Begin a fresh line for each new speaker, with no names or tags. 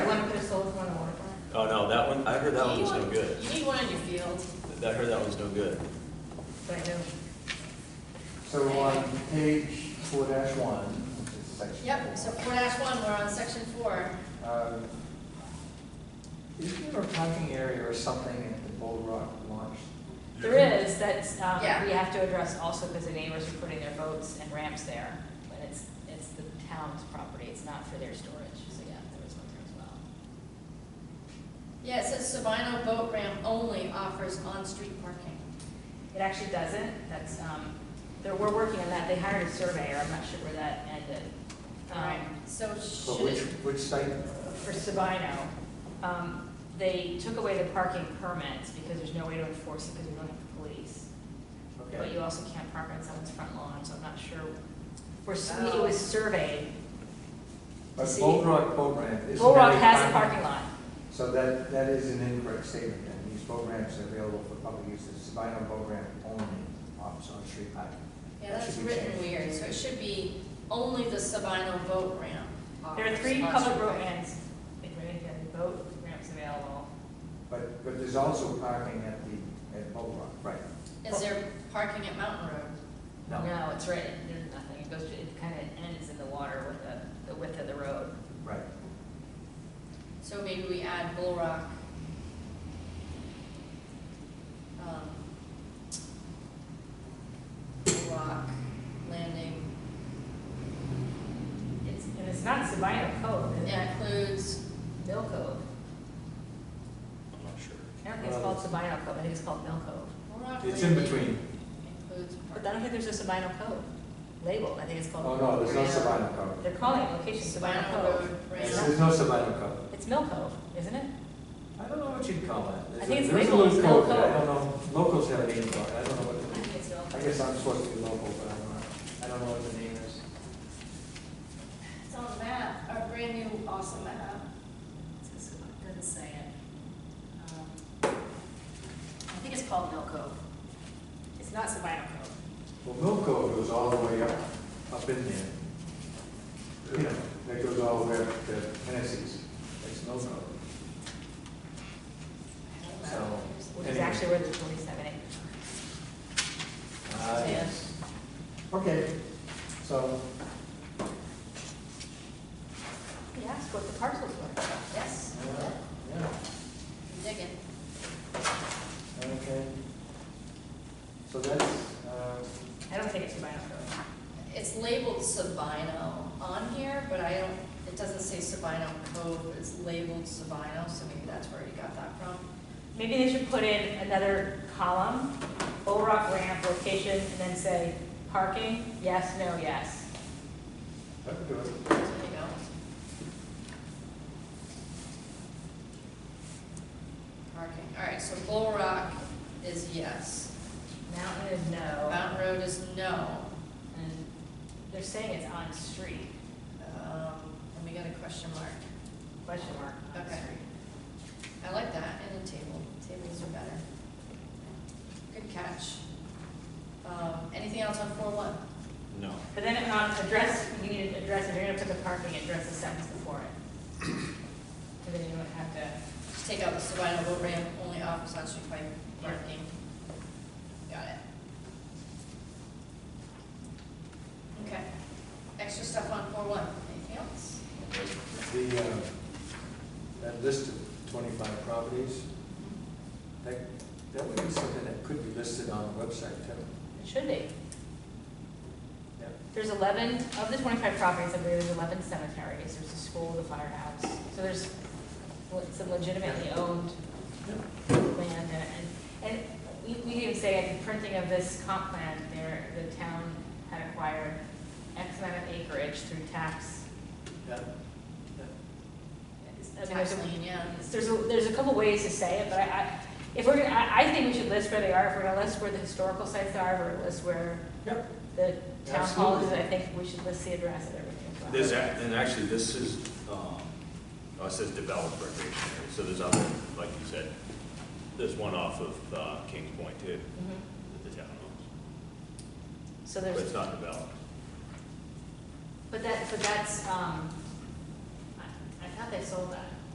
Oh, no, that one, I heard that one
You
was no
want-
good.
You need one in your field.
I heard that one's no good.
I know.
So on page four dash one, which is section.
Yep, so four dash one, we're on section four.
Um, Is there a parking area or something at the Bull Rock launch?
There is, that's, um,
Yeah.
we have to address also because the neighbors are putting their boats and ramps there, but it's, it's the town's property, it's not for their storage, so yeah, there was one there as well.
Yeah, it says Sabino Boat Ramp only offers on-street parking.
It actually doesn't, that's, um, there, we're working on that, they hired a surveyor, I'm not sure where that ended.
All right,
Um,
so
So
should
which,
it,
which site?
For Sabino, um, they took away the parking permits because there's no way to enforce it because we don't have the police. But
Okay.
you also can't park on someone's front lawn, so I'm not sure, we're, s- we- it was surveyed,
But
see-
Bull Rock boat ramp is.
Bull Rock has a parking lot.
So that, that is an incorrect statement, then. These boat ramps are available for public use. The Sabino boat ramp only offers on-street parking.
yeah, that's
Should be
written
changed.
weird, so it should be only the Sabino Boat Ramp.
There are
offers
three
on-street
public road
parking.
ramps, and boat ramps available.
But, but there's also parking at the, at Bull Rock, right?
Is there parking at Mountain Road?
No, it's right, there's nothing, it goes, to- it kind of ends in the water with the, the width of the road.
Right.
So maybe we add Bull Rock. um, Bull Rock Landing
It's, and it's not Sabino Cove, it's not
includes,
Mill Cove.
I'm not sure.
I don't think it's called Sabino Cove, I think it's called Mill Cove.
Bull Rock
It's in
Landing
between.
Includes
But I don't
parking.
think there's a Sabino Cove labeled, I think it's called.
Oh, no, there's no
Yeah.
Sabino Cove.
They're calling it location Sabino
Sabino
Cove.
Road
There's
Ramp.
there's no Sabino Cove.
It's Mill Cove, isn't it?
I don't know what you'd call it. There's
I think
a-
it's
there's a
labeled as
little code,
no
but I
code.
don't know, locals have a name for it, I don't know
I
what,
think it's Mill
I
Cove.
guess I'm supposed to be local, but I'm not. I don't know what the name is.
It's on the map, our brand new awesome map.
It's- it Doesn't say it. Um, I think it's called Mill Cove. It's not Sabino Cove.
Well, Mill Cove goes all the way up, up in there. You know, that goes all the way up to Hennessy's. It's Mill Cove. So.
Which is
anyway.
actually where the twenty-seven acres
Ah, yes. Okay, so
are. Yeah, that's what the parcels were.
Yes,
Yeah, uh, yeah,
digging.
okay. So that's, uh,
I don't think it's Sabino Cove.
It's labeled Sabino on here, but I don't, it doesn't say Sabino Cove, it's labeled Sabino, so maybe that's where you got that from.
Maybe they should put in another column, Bull Rock ramp location, and then say parking, yes, no, yes.
that would do it.
So There you go. Parking, all right, so Bull Rock is yes,
Mountain is no,
Mountain Road is no.
and they're saying it's on street,
Um, And we got a question mark.
question mark. on
Okay.
street.
I like that, and a table, tables are better. Good catch. Um, Anything else on four one?
No.
But then on address, you need to address, if you're gonna put the parking, address the sentence before it. So then you don't have to,
Just take out the Sabino boat ramp, only office on street pipe parking. Got it. Okay, extra stuff on four one, anything else?
The, uh, that list of twenty-five properties, that, that would be something that could be listed on the website too.
it should be.
Yeah.
There's eleven, of the twenty-five properties, I believe there's eleven cemeteries, there's a school, the firehouse, so there's le- some legitimately owned land, and, and we, we didn't say at the printing of this comp plan, there, the town had acquired X amount of acreage through tax.
Yeah.
I mean, there's
Tax
a-
lien, yeah.
There's a, there's a couple ways to say it, but I, I, if we're gonna, I, I think we should list where they are, if we're gonna list where the historical sites are, if we're gonna list where
Yep.
the town hall is,
Absolutely.
I think we should list the address of everything. as well.
There's, ac- and actually, this is, um, oh, it says developed recreation area, so there's other, like you said, there's one off of, uh, Kings Point too,
Mhm.
that the town owns,
So
but it's
there's,
not developed.
but that, but that's, um, I, I thought they sold that.